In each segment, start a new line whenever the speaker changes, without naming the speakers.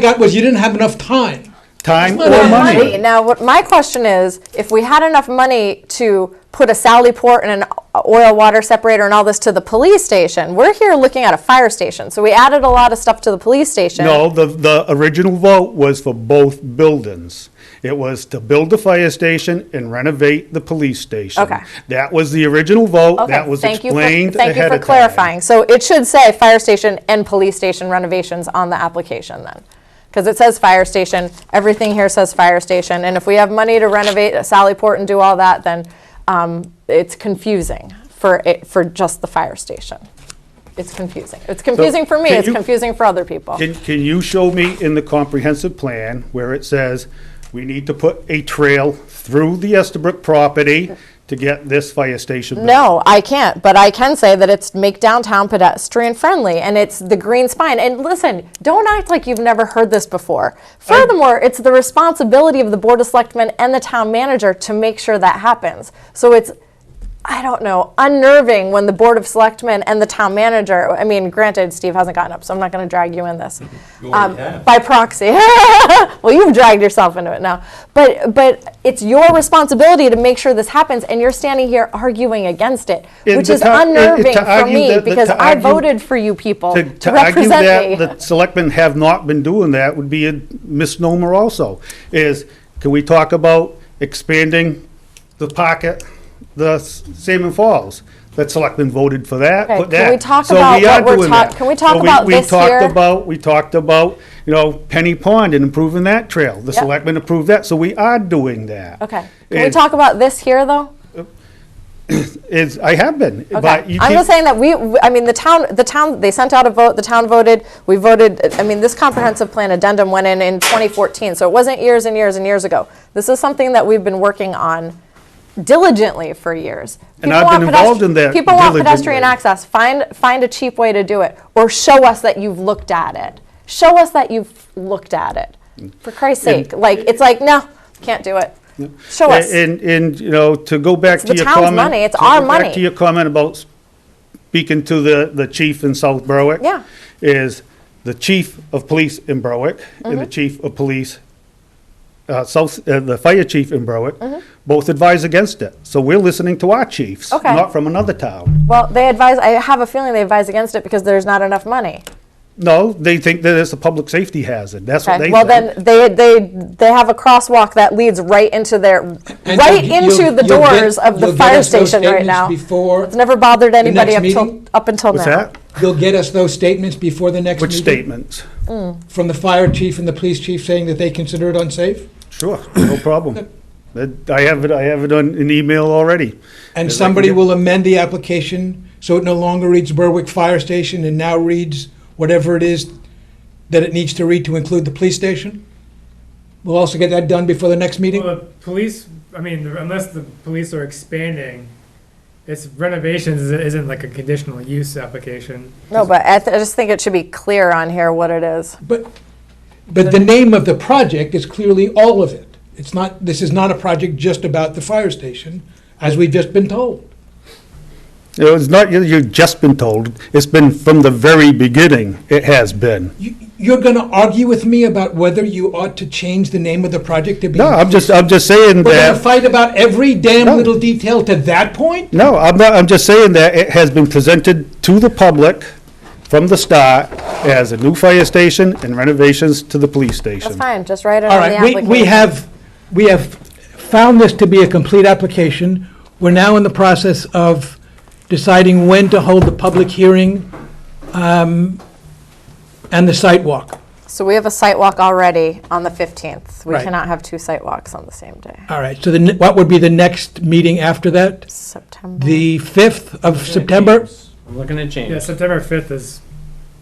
got was you didn't have enough time.
Time
Well,
or
yeah,
money.
Now, what my question is, if we had enough money to put a Sally port and an oil water separator and all this to the police station, we're here looking at a fire station. So we added a lot of stuff to the police station.
No, the, the original vote was for both buildings. It was to build the fire station and renovate the police station.
Okay.
That was the original vote,
Okay,
that was
thank you for-
explained
Thank you
ahead
for
of time.
clarifying. So it should say fire station and police station renovations on the application then. Because it says fire station, everything here says fire station. And if we have money to renovate Sally Port and do all that, then um, it's confusing for, it- for just the fire station. It's confusing. It's confusing for me,
can
it's
you-
confusing for other people.
Can, can you show me in the comprehensive plan where it says we need to put a trail through the Estabrook property to get this fire station built?
No, I can't, but I can say that it's make downtown pedestrian friendly and it's the green spine. And listen, don't act like you've never heard this before. Furthermore, it's the responsibility of the Board of Selectmen and the town manager to make sure that happens. So it's, I don't know, unnerving when the Board of Selectmen and the town manager, I mean, granted, Steve hasn't gotten up, so I'm not going to drag you in this. Um, By proxy. well, you've dragged yourself into it now. But but it's your responsibility to make sure this happens, and you're standing here arguing against it,
And
which
the
is
to- and- and to
unnerving for
argue
me
that- that-
because
to
I
argue-
voted for you people
To
to,
to argue
represent me.
that the selectmen have not been doing that would be a misnomer also, is, can we talk about expanding the pocket, the S- Salmon Falls? The selectmen voted for that,
Okay,
put
can
that.
we talk
So
about
we are
what we're
doing
talk-
that.
can we talk
So
about
we
this here?
talked about, we talked about, you know, Penny Pond and improving that trail. The
Yep.
selectmen approved that, so we are doing that.
okay, can we
And
talk about this here though?
Is, I have been,
Okay.
but you
I'm just
keep,
saying that we, I mean, the town, the town, they sent out a vote, the town voted, we voted, I mean, this comprehensive plan addendum went in in 2014, so it wasn't years and years and years ago. This is something that we've been working on diligently for years.
And
People
I've
want
been
pedestri-
involved in that
People want
diligently.
pedestrian access, find, find a cheap way to do it, or show us that you've looked at it. Show us that you've looked at it, for Christ's sake, like, it's like, no, can't do it. Show us.
and, and, you know, to go back
It's
to
the
your
town's
comment.
money, it's
to
our
go back
money.
To your comment about speaking to the, the chief in South Berwick.
Yeah.
Is the chief of police in Berwick and the
Mm-hmm.
chief of police, uh, South, uh, the fire chief in Berwick,
Mm-hmm.
both advise against it. So we're listening to our chiefs,
Okay.
not from another town.
Well, they advise, I have a feeling they advise against it because there's not enough money.
No, they think that it's a public safety hazard. That's what they
Okay,
think.
well then, they, they, they have a crosswalk that leads right into their,
And
right
you'll-
into
you'll-
the
you'll get-
doors of the
you'll get
fire
us those
station right
statements
now.
Before
It's never bothered anybody
next
up till,
meeting?
up until now.
What's that?
you'll get us those statements before the next
Which
meeting
statements?
from the fire chief and the police chief saying that they consider it unsafe,
Sure, no problem. That- I have it, I have it on an email already.
and
Is that-
somebody will amend the application so it no longer reads Berwick Fire Station and now reads whatever it is that it needs to read to include the police station. We'll also get that done before the next meeting.
Well, the police, I mean, the- unless the police are expanding, it's renovations is- isn't like a conditional use application.
No, but I, th- I just think it should be clear on here what it is.
But, but the name of the project is clearly all of it. It's not, this is not a project just about the fire station, as we've just been told.
It was not, you- you've just been told, it's been from the very beginning, it has been.
You, you're gonna argue with me about whether you ought to change the name of the project to be.
No, I'm just, I'm just saying
We're gonna
that,
fight about every damn
No.
little detail to that point?
no, I'm not, I'm just saying that it has been presented to the public from the start as a new fire station and renovations to the police
That's
station.
fine, just write it
All
on the
right, we,
application.
we have, we have found this to be a complete application. We're now in the process of deciding when to hold the public hearing um,
um,
and the site walk.
So we have a site walk already on the 15th. We
Right.
cannot have two site walks on the same day,
All right, so then what would be the next meeting after that?
September.
The 5th of September?
I'm looking to change.
Yeah, September fifth is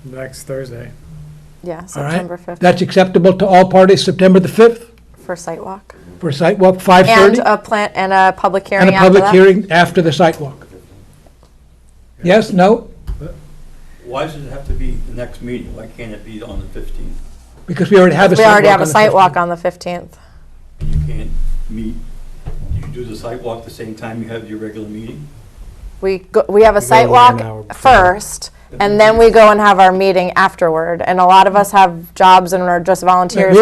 next Thursday.
Yeah,
All right,
September 5th
That's acceptable to all parties, September the 5th
for site walk.
for site walk,
And
5:30?
a plant, and a public
And
hearing
a
after
public
that.
hearing after the site walk. Yes, no?
Why does it have to be the next meeting? Why can't it be on the fifteenth?
Because we already have a
We
site walk
already have a
on the
site
15th.
walk on the 15th.
You can't meet, you do the sidewalk the same time you have your regular meeting?
We, go- we have a site
gotta wait an hour
walk
before.
first, And then we go and have our meeting afterward. And a lot of us have jobs and are just volunteers.